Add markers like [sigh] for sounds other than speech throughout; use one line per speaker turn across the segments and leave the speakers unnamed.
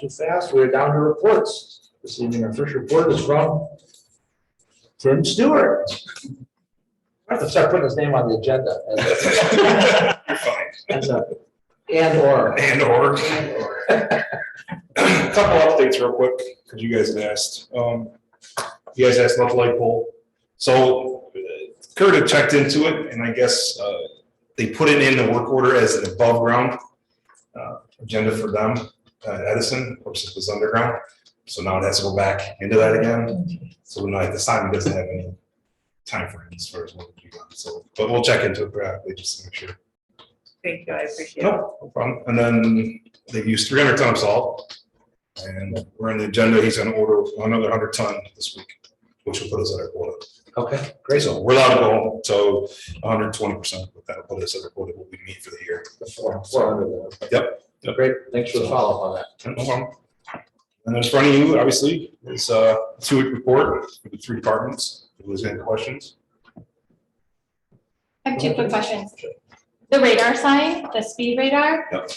Too fast, we're down to reports. This evening, our first report is from Tim Stewart. I have to start putting his name on the agenda. as-
You're fine.
as a- And or.
And or. Couple updates real quick, because you guys had asked. Um, you guys asked about the light pole. So uh, Kurt had checked into it and I guess, uh, they put it in the work order as an above ground, uh, agenda for them, uh, Edison, of course it was underground. So now it has to go back into that again. So now at this time, it doesn't have any timeframe as far as what we got. So, but we'll check into it graphically just to make sure.
Thank you, I appreciate it.
Nope, no problem. And then they've used three hundred ton of salt. And we're on the agenda, he's gonna order another hundred ton this week, which will put us at our quota.
Okay,
Great, so we're allowed to go, so hundred and twenty percent, that'll put us at our quota, what we need for the year.
four, four hundred. then.
Yep, yep.
Great, thanks for the follow-up on that.
No problem. And then in front of you, obviously, is a two-week report for the three departments. If there's any questions?
I have two quick questions. The radar sign, the speed radar.
Yep.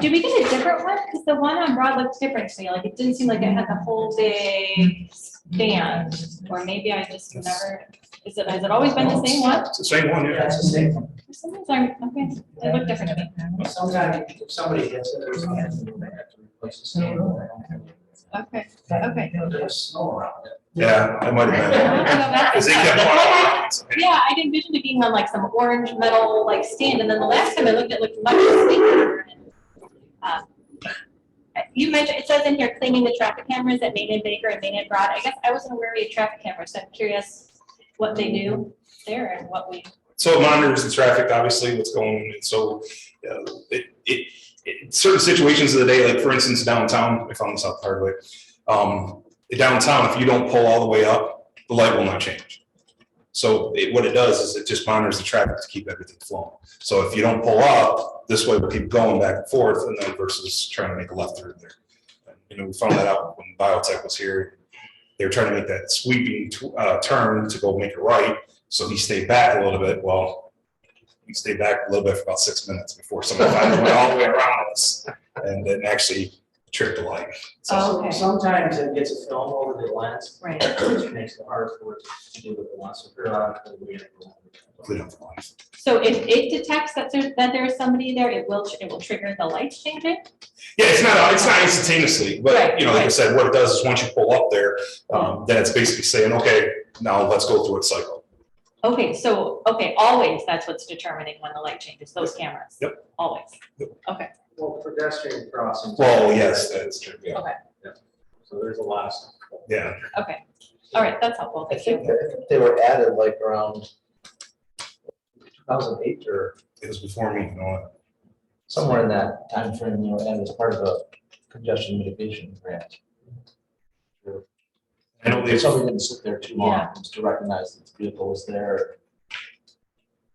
Did we get a different one? Because the one on Broad looked different to me. Like, it didn't seem like it had the whole big stand. Or maybe I just never, is it, has it always been the same one?
It's the same one, yeah.
That's the same.
For some reason, I- okay, it looked different to me.
Sometimes if somebody gets it, there's a hand, they have to replace the sand.
Okay, okay.
You know, there's snow around it.
Yeah, I might have been. Cause they kept walking around.
Yeah, I would envisioned it being on like some orange metal like stand, and then the last time I looked, it looked much sleeker. and, uh, You mentioned, it says in here cleaning the traffic cameras at Main and Baker and Main and Broad, I guess I wasn't aware we had traffic cameras, so I'm curious what they do there and what we,
So it monitors the traffic, obviously, what's going, on. and so, uh, it, it, it, certain situations of the day, like for instance downtown, I found this out the hard way. Um, downtown, if you don't pull all the way up, the light will not change. So it, what it does is it just monitors the traffic to keep everything flowing. So if you don't pull up, this way we'll keep going back and forth and then versus trying to make a left through there. You know, we found that out when biotech was here. They were trying to make that sweeping, tw- uh, turn to go make a right. So he stayed back a little bit. Well, he stayed back a little bit for about six minutes before someone finally went all the way around us and then actually tripped the light.
Oh,
So
okay.
sometimes it gets a film over the lens,
right,
which makes it hard for it to do what it wants to. periodically, we have to-
Clean up the line.
so if it detects that there, that there is somebody there, it will, it will trigger the lights changing?
Yeah, it's not, it's not instantaneously, but
Right,
you know, like I
right.
said, what it does is once you pull up there, um, then it's basically saying, okay, now let's go through its cycle.
Okay, so, okay, always, that's what's determining when the light changes, those cameras? Yep. Always,
Well, pedestrian crossing.
Well, yes, that's true. Yeah.
okay,
So there's a lot of stuff.
Yeah.
okay, all right, that's helpful,
I
thank you.
think that they were added like around two thousand eight or
It was before me, you know.
somewhere in that timeframe, you know, and as part of a congestion mitigation grant.
I know they,
Somebody didn't sit there too long, just to recognize that the vehicle was there.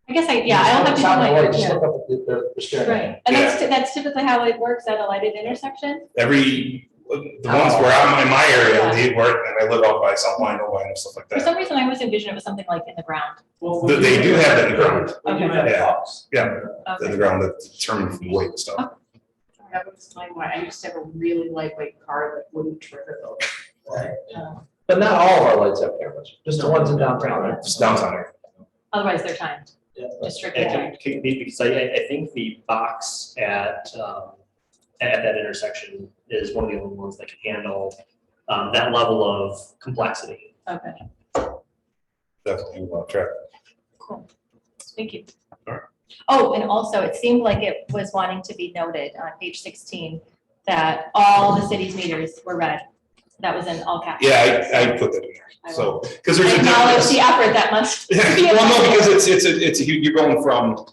I guess I, yeah, I'll have to do
Stop and
my,
wait, Just
yeah,
look up at the- the, the steering wheel.
right, and that's, that's typically how it works at a lighted intersection?
every, the ones where I'm in my area, they work and I live out by South Line, Line and stuff like
For
that.
some reason, I always envisioned it was something like in the ground.
Well,
They- they do have that in the ground.
We do have
Yeah.
cops.
Yeah. in the
Okay,
ground that determine from weight and stuff.
That would explain why I used to have a really lightweight car that wouldn't trigger those.
Right.
Uh,
But not all of our lights have cameras, just the ones in downtown. right?
It's downtown area.
otherwise they're timed,
Yeah.
just strictly
Yeah,
timed.
it could be, because I, I I think the box at, um, at that intersection is one of the only ones that can handle, um, that level of complexity.
Okay,
Definitely will track.
cool, thank you.
Alright.
Oh, and also, it seemed like it was wanting to be noted on page sixteen that all the city's meters were red. That was in all caps.
Yeah, I, I put that in there. So, because there's a
Acknowledge
difference.
the effort that
[laughs]
must. be
Well, no, because it's, it's, a- it's, a huge- you're going from,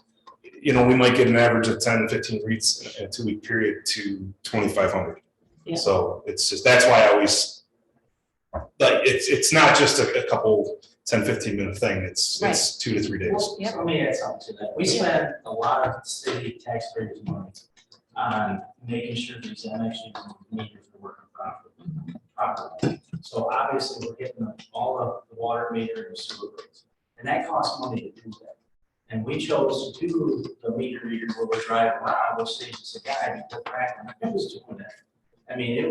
you know, we might get an average of 10 to 15 reads in a- in a two-week period to 2,500.
Yeah.
So it's just, that's why I always, like, it's, it's not just a a couple 10, 15-minute thing. It's, it's two to three days.
Yeah.
Let me add something to that. We spend a lot of city taxpayers' money on making sure these annexes and meters are working properly. properly. So obviously, we're getting all of the water meter and sewer rates, and that costs money to do that. And we chose to do the meter reader where we drive around, which saves us a guy, because Franklin was doing that. I mean, it